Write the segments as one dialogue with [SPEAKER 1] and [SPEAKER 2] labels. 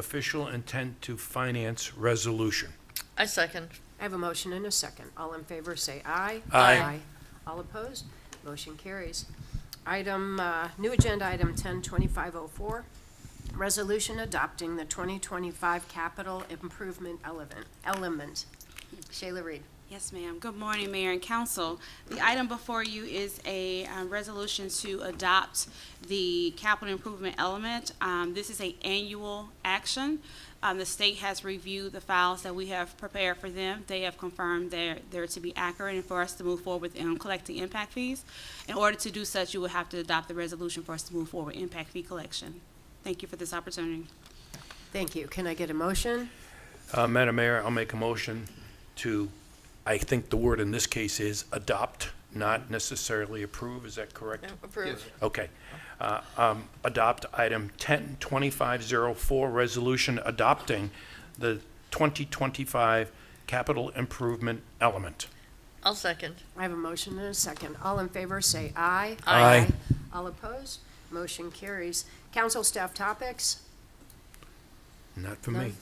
[SPEAKER 1] official intent to finance resolution.
[SPEAKER 2] I second.
[SPEAKER 3] I have a motion and a second. All in favor, say aye.
[SPEAKER 1] Aye.
[SPEAKER 3] All opposed? Motion carries. Item, uh, new agenda item ten twenty-five oh four, resolution adopting the twenty twenty-five capital improvement element, element. Shayla Reed.
[SPEAKER 4] Yes, ma'am. Good morning, Mayor and Council. The item before you is a um, resolution to adopt the capital improvement element. Um, This is a annual action. Um, The state has reviewed the files that we have prepared for them. They have confirmed they're, they're to be accurate and for us to move forward with um, collecting impact fees. In order to do such, you will have to adopt the resolution for us to move forward with impact fee collection. Thank you for this opportunity.
[SPEAKER 3] Thank you. Can I get a motion?
[SPEAKER 1] Uh, Madam Mayor, I'll make a motion to, I think the word in this case is adopt, not necessarily approve, is that correct?
[SPEAKER 2] Approve.
[SPEAKER 1] Okay. Uh, um, Adopt item 102504, resolution adopting the 2025 capital improvement element.
[SPEAKER 2] I'll second.
[SPEAKER 3] I have a motion and a second. All in favor, say aye.
[SPEAKER 1] Aye. Aye.
[SPEAKER 3] All opposed? Motion carries. Council staff topics?
[SPEAKER 1] Not for me.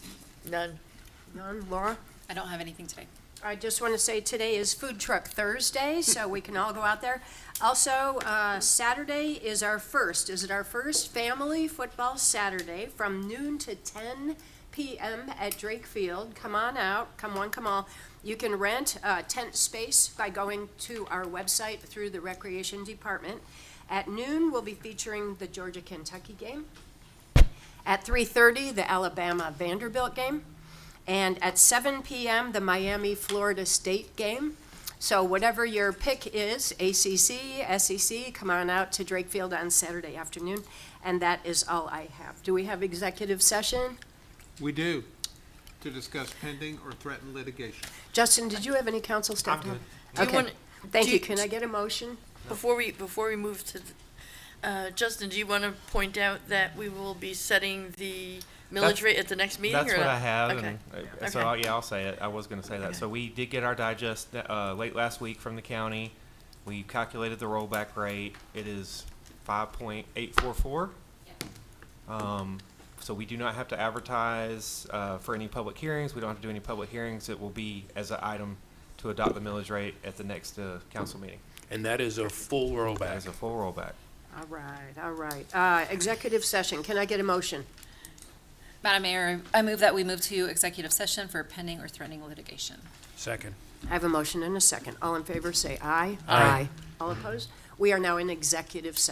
[SPEAKER 2] None.
[SPEAKER 3] None. Laura?
[SPEAKER 5] I don't have anything today.
[SPEAKER 3] I just want to say today is Food Truck Thursday, so we can all go out there. Also, uh, Saturday is our first, is it our first Family Football Saturday from noon to ten PM at Drake Field. Come on out, come one, come all. You can rent uh, tent space by going to our website through the Recreation Department. At noon, we'll be featuring the Georgia-Kentucky game. At three-thirty, the Alabama-Vanderbilt game. And at 7 p.m., the Miami Florida State game. So, whatever your pick is ACC, SEC E come on out to Drake Field on Saturday afternoon. And that is all I have. Do we have executive session?
[SPEAKER 6] We do, to discuss pending or threatened litigation.
[SPEAKER 3] Justin, did you have any council stuff?
[SPEAKER 6] I'm
[SPEAKER 2] Do you
[SPEAKER 3] Okay.
[SPEAKER 2] wanna-
[SPEAKER 3] Thank
[SPEAKER 2] do
[SPEAKER 3] you.
[SPEAKER 2] you-
[SPEAKER 3] Can I get a motion?
[SPEAKER 2] Before we, before we move to, th- uh, Justin, do you want to point out that we will be setting the millage
[SPEAKER 7] That's-
[SPEAKER 2] rate at the next meeting?
[SPEAKER 7] That's
[SPEAKER 2] or
[SPEAKER 7] what
[SPEAKER 2] not?
[SPEAKER 7] I have,
[SPEAKER 2] Okay.
[SPEAKER 7] and uh, so
[SPEAKER 2] Okay.
[SPEAKER 7] I'll- yeah, I'll say it. I was going to say that. So we did get our digest uh, late last week from the county. We calculated the rollback rate. It is five point eight four four. Um, so we do not have to advertise uh, for any public hearings. We don't have to do any public hearings. It will be as an item to adopt the millage rate at the next uh, council meeting.
[SPEAKER 1] And that is a full
[SPEAKER 7] That
[SPEAKER 1] rollback.
[SPEAKER 7] is a full rollback.
[SPEAKER 3] All right, all right. Uh, executive session. Can I get a motion?
[SPEAKER 5] Madam Mayor, I move that we move to executive session for pending or threatening litigation.
[SPEAKER 1] Second.
[SPEAKER 3] I have a motion and a second. All in favor say aye.
[SPEAKER 1] Aye.
[SPEAKER 3] All opposed? We are now in executive session.